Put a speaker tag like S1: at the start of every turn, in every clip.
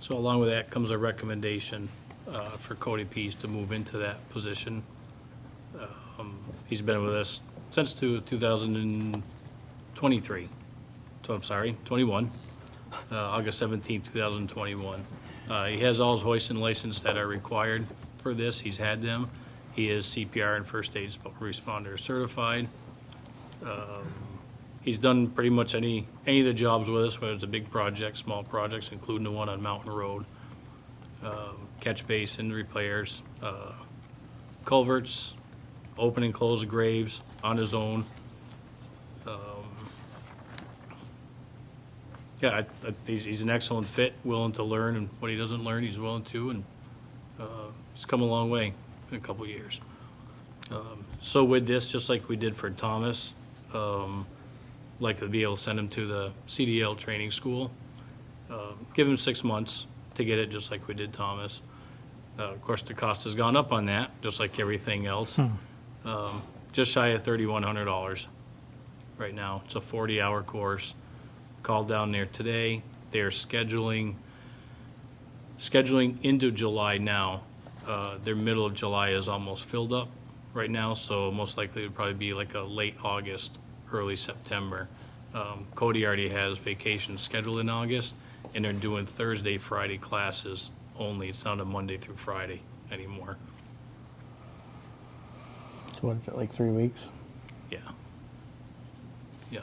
S1: So along with that comes a recommendation uh, for Cody Pease to move into that position. Um, He's been with us since two- 2023, so I'm sorry, 21, uh, August 17, 2021. Uh, He has all his hoist and license that are required for this, he's had them. He is CPR and first aid responder certified. He's done pretty much any, any of the jobs with us, whether it's a big project, small projects, including the one on Mountain Road. Um, Catch basin repairs, uh, culverts, open and close graves on his own. Um, Yeah, I, I, he's, he's an excellent fit, willing to learn, and what he doesn't learn, he's willing to, and, uh, he's come a long way in a couple of years. Um, So with this, just like we did for Thomas, um, like to be able to send him to the CDL training school. Uh, Give him six months to get it, just like we did Thomas. Uh, Of course, the cost has gone up on that, just like everything else. Um, Just shy of thirty-one hundred dollars right now. It's a forty-hour course. Called down there today. They're scheduling, scheduling into July now. Uh, Their middle of July is almost filled up right now, so most likely it'd probably be like a late August, early September. Um, Cody already has vacation scheduled in August, and they're doing Thursday, Friday classes only. It's not a Monday through Friday anymore.
S2: So what is it, like three weeks?
S1: Yeah. Yeah.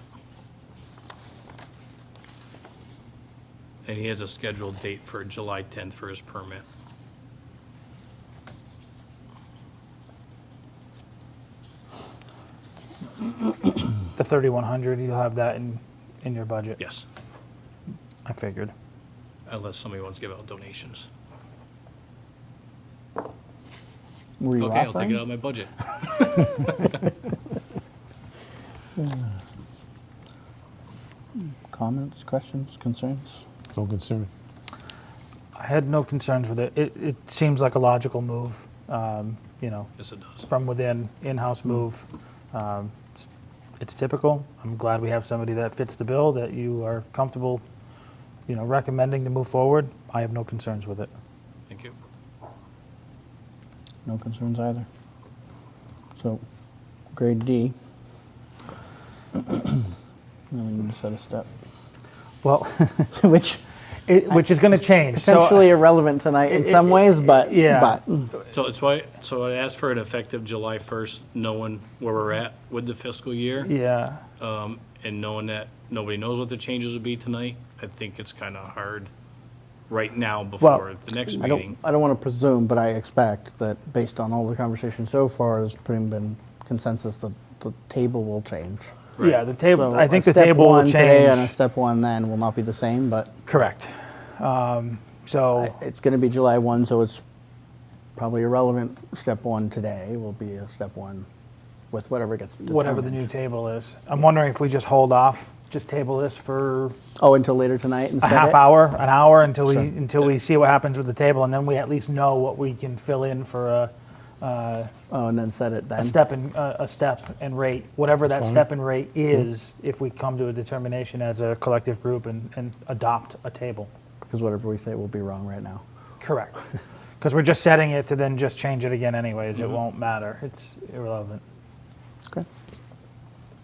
S1: And he has a scheduled date for July 10th for his permit.
S3: The thirty-one hundred, you'll have that in, in your budget.
S1: Yes,
S3: I figured.
S1: unless somebody wants to give out donations.
S2: Were you
S1: Okay, I'll take
S2: offering?
S1: it out of my budget.
S2: Comments, questions, concerns?
S4: No concern.
S3: I had no concerns with it. It, it seems like a logical move, um, you know,
S1: Yes, it does.
S3: from within,
S2: Hmm.
S3: in-house move. Um, it's- It's typical. I'm glad we have somebody that fits the bill, that you are comfortable, you know, recommending to move forward. I have no concerns with it.
S1: Thank you.
S2: No concerns either. So, grade D. Now we need to set a step,
S3: Well,
S2: which
S3: it, which is going to change. So, uh,
S2: potentially irrelevant tonight in
S3: It-
S2: some
S3: it-
S2: ways, but
S3: yeah.
S2: but mm,
S1: So it's why, so I asked for an effective July 1st, knowing where we're at with the fiscal year.
S3: Yeah,
S1: Um, and knowing that nobody knows what the changes would be tonight, I think it's kind of hard right now before the next
S2: I don't
S1: meeting.
S2: I don't want to presume, but I expect that based on all the conversation so far, there's pretty been consensus that the table will change.
S1: Right.
S3: yeah, the table,
S2: So
S3: I
S2: a
S3: think the
S2: step
S3: table
S2: one
S3: will
S2: today and a
S3: change.
S2: step one then will not be the same, but
S3: Correct. Um, So,
S2: It's going to be July 1, so it's probably irrelevant. Step one today will be a step one with whatever gets determined.
S3: whatever the new table is. I'm wondering if we just hold off, just table this for
S2: Oh, until later tonight and
S3: a
S2: set
S3: half
S2: it?
S3: hour, an hour until we
S2: Sure.
S3: until we see what happens with the table, and then we at least know what we can fill in for a uh,
S2: Oh, and then set it then?
S3: a step and uh, a step and rate, whatever that
S4: Fine.
S3: step and rate is, if we come to a determination as a collective group and, and adopt a table.
S2: Because whatever we say will be wrong right now.
S3: Correct. Because we're just setting it to then just change it again anyways.
S2: Mm-hmm.
S3: It won't matter. It's irrelevant.
S2: Okay.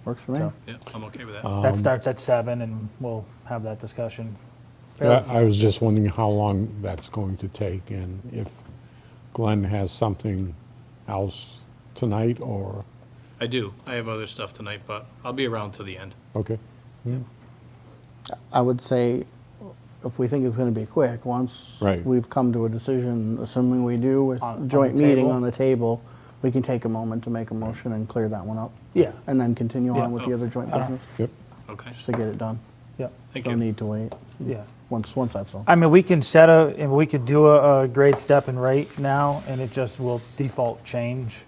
S2: Works for me.
S3: So-
S1: Yeah, I'm okay with that.
S2: Um,
S3: that starts at seven, and we'll have that discussion.
S4: I I was just wondering how long that's going to take and if Glenn has something else tonight or,
S1: I do. I have other stuff tonight, but I'll be around till the end.
S4: okay.
S2: I would say, if we think it's going to be quick, once
S4: Right.
S2: we've come to a decision, assuming we do with
S3: On- on
S2: joint
S3: the
S2: meeting
S3: table?
S2: on the table, we can take a moment to make a motion and clear that one up.
S3: Yeah.
S2: And then continue
S3: Yeah.
S2: on with the other joint business,
S4: Yep.
S1: Okay,
S2: just to get it done.
S3: Yeah.
S1: thank
S2: No
S1: you.
S2: need to wait,
S3: Yeah.
S2: once, once that's all.
S3: I mean, we can set a, and we could do a, a grade step and rate now, and it just will default change.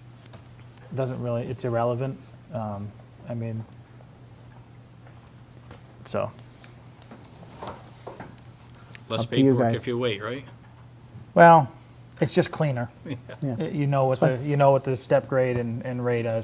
S3: Doesn't really, it's irrelevant. Um, I mean, so,
S1: Less
S2: Up to you
S1: paperwork
S2: guys.
S1: if you wait, right?
S3: well, it's just cleaner.
S2: Yeah.
S3: You know what the, you know what the step grade and, and rate is.